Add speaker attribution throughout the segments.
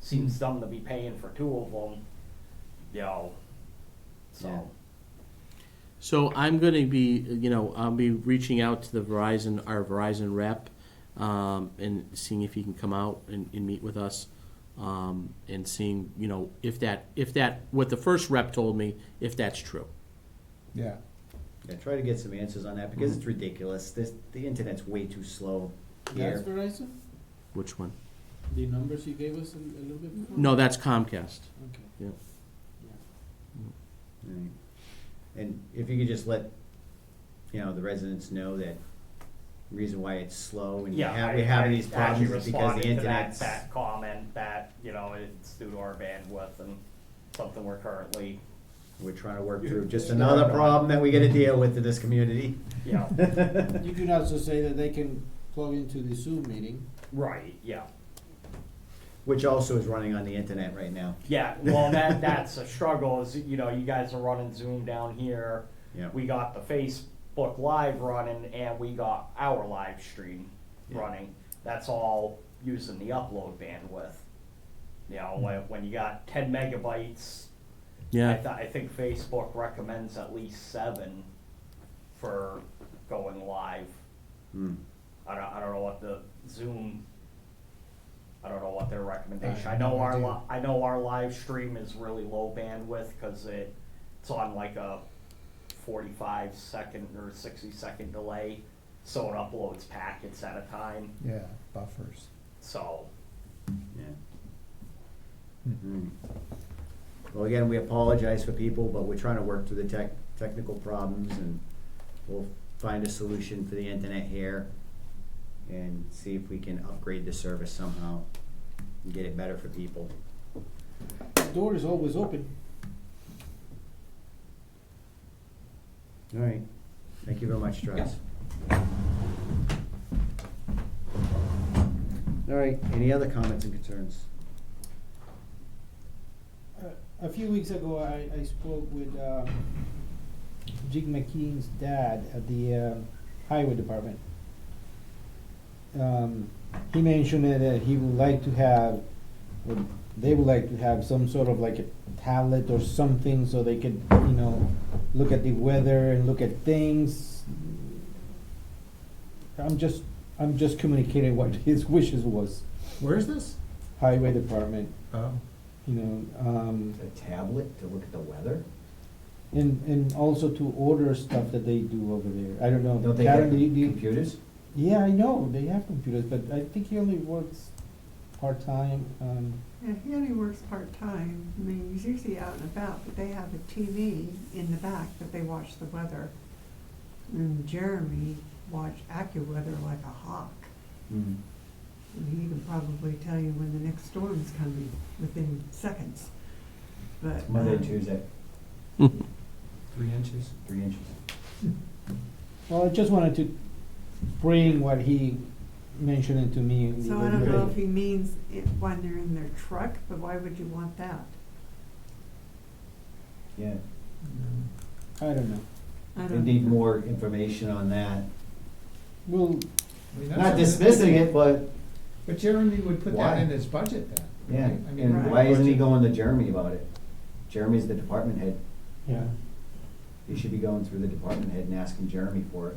Speaker 1: seems dumb to be paying for two of them, you know,
Speaker 2: Yeah.
Speaker 1: so.
Speaker 2: So I'm going to be, you know, I'll be reaching out to the Verizon, our Verizon rep, um, and seeing if he can come out and, and meet with us, um, and seeing, you know, if that, if that, what the first rep told me, if that's true.
Speaker 3: Yeah.
Speaker 4: Yeah, try to get some answers on that because it's
Speaker 1: Mm-hmm.
Speaker 4: ridiculous. This, the internet's way too slow
Speaker 5: That's
Speaker 4: here.
Speaker 5: Verizon,
Speaker 2: Which one?
Speaker 5: the numbers you gave us a a little bit before?
Speaker 2: No, that's Comcast.
Speaker 5: Okay.
Speaker 2: Yeah.
Speaker 4: Right. And if you could just let, you know, the residents know that reason why it's slow and you
Speaker 1: Yeah,
Speaker 4: have,
Speaker 1: I-
Speaker 4: we have
Speaker 1: I
Speaker 4: these problems
Speaker 1: actually
Speaker 4: is because
Speaker 1: responded
Speaker 4: the
Speaker 1: to that-
Speaker 4: internet's.
Speaker 1: That comment that, you know, it's due to our bandwidth and something we're currently,
Speaker 4: We're trying to work through just another problem that we
Speaker 1: Mm-hmm.
Speaker 4: gotta deal with in this community.
Speaker 1: you know,
Speaker 5: You could also say that they can plug into the Zoom meeting.
Speaker 1: right, yeah.
Speaker 4: Which also is running on the internet right now.
Speaker 1: Yeah, well, that, that's a struggle is, you know, you guys are running Zoom down here.
Speaker 4: Yeah.
Speaker 1: We got the Facebook Live running and we got our live stream
Speaker 4: Yeah.
Speaker 1: running. That's all using the upload bandwidth. You know,
Speaker 4: Hmm.
Speaker 1: when, when you got ten megabytes, I, th-
Speaker 2: Yeah,
Speaker 1: I think Facebook recommends at least seven for going live.
Speaker 4: Hmm.
Speaker 1: I don't, I don't know what the Zoom, I don't know what their recommendation,
Speaker 3: I
Speaker 1: I
Speaker 3: have no
Speaker 1: know our,
Speaker 3: idea.
Speaker 1: li- I know our live stream is really low bandwidth, cause it, it's on like a forty-five second or sixty second delay, so it uploads packets at a time,
Speaker 3: Yeah, buffers.
Speaker 1: so,
Speaker 4: Yeah. Mm. Well, again, we apologize for people, but we're trying to work through the tech, technical problems and we'll find a solution for the internet here and see if we can upgrade the service somehow and get it better for people.
Speaker 5: The door is always open.
Speaker 4: All right. Thank you very much, Travis. All right, any other comments and concerns?
Speaker 5: Uh, A few weeks ago, I, I spoke with, uh, Jig McKean's dad at the, um, highway department. Um, he mentioned that uh, he would like to have, or they would like to have some sort of like a tablet or something so they could, you know, look at the weather and look at things. I'm just, I'm just communicating what his wishes was,
Speaker 3: Where is this?
Speaker 5: highway department,
Speaker 3: Oh.
Speaker 5: you know, um.
Speaker 4: A tablet to look at the weather?
Speaker 5: And, and also to order stuff that they do over there. I don't know.
Speaker 4: Don't they
Speaker 5: Karen,
Speaker 4: have
Speaker 5: do you- do you-
Speaker 4: computers?
Speaker 5: Yeah, I know, they have computers, but I think he only works part-time, um,
Speaker 6: Yeah, he only works part-time. I mean, he's usually out and about, but they have a TV in the back that they watch the weather. And Jeremy watched AccuWeather like a hawk.
Speaker 5: Mm-hmm.
Speaker 4: Mm.
Speaker 6: And he can probably tell you when the next storm's coming within seconds. But.
Speaker 4: Monday,
Speaker 6: um,
Speaker 4: Tuesday.
Speaker 3: Three inches.
Speaker 4: Three inches.
Speaker 5: well, I just wanted to bring what he mentioned to me. in the
Speaker 6: So I don't know
Speaker 5: other
Speaker 6: if
Speaker 5: day.
Speaker 6: he means it when they're in their truck, but why would you want that?
Speaker 4: Yeah,
Speaker 5: I don't know.
Speaker 6: I
Speaker 4: they
Speaker 6: don't.
Speaker 4: need more information on that.
Speaker 5: Well,
Speaker 3: I mean, that's
Speaker 4: Not
Speaker 3: what-
Speaker 4: dismissing it, but,
Speaker 3: But Jeremy would put
Speaker 4: Why?
Speaker 3: that in his budget then.
Speaker 4: yeah,
Speaker 3: right? I mean,
Speaker 4: and why isn't he
Speaker 3: budget-
Speaker 4: going to Jeremy about it? Jeremy's the department head,
Speaker 5: yeah,
Speaker 4: he should be going through the department head and asking Jeremy for it.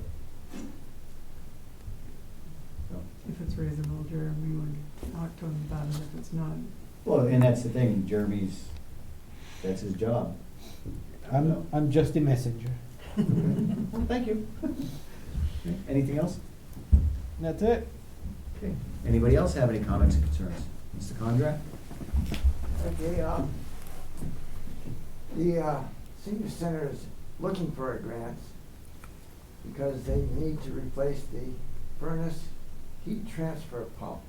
Speaker 4: So-
Speaker 6: If it's reasonable, Jeremy would talk to him about it. If it's not,
Speaker 4: Well, and that's the thing, Jeremy's, that's his job.
Speaker 5: I'm, I'm just a messenger.
Speaker 4: Well, thank you. Anything else?
Speaker 5: That's it.
Speaker 4: Okay, anybody else have any comments and concerns? Mr. Condra?
Speaker 7: Okay, um, the, uh, senior center is looking for a grant because they need to replace the furnace heat transfer pump.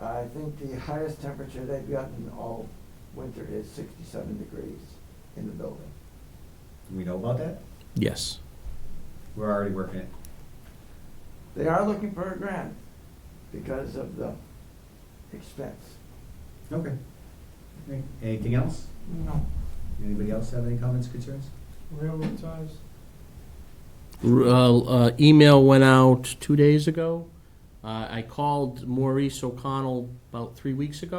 Speaker 7: I think the highest temperature they've gotten all winter is sixty-seven degrees in the building.
Speaker 4: Do we know about that?
Speaker 2: yes.
Speaker 4: We're already working it.
Speaker 7: They are looking for a grant because of the expense.
Speaker 4: Okay. Anything else?
Speaker 7: No.
Speaker 4: Anybody else have any comments, concerns?
Speaker 7: Railroad ties?
Speaker 2: R- Uh, uh, email went out two days ago Uh, I called Maurice O'Connell about three weeks ago.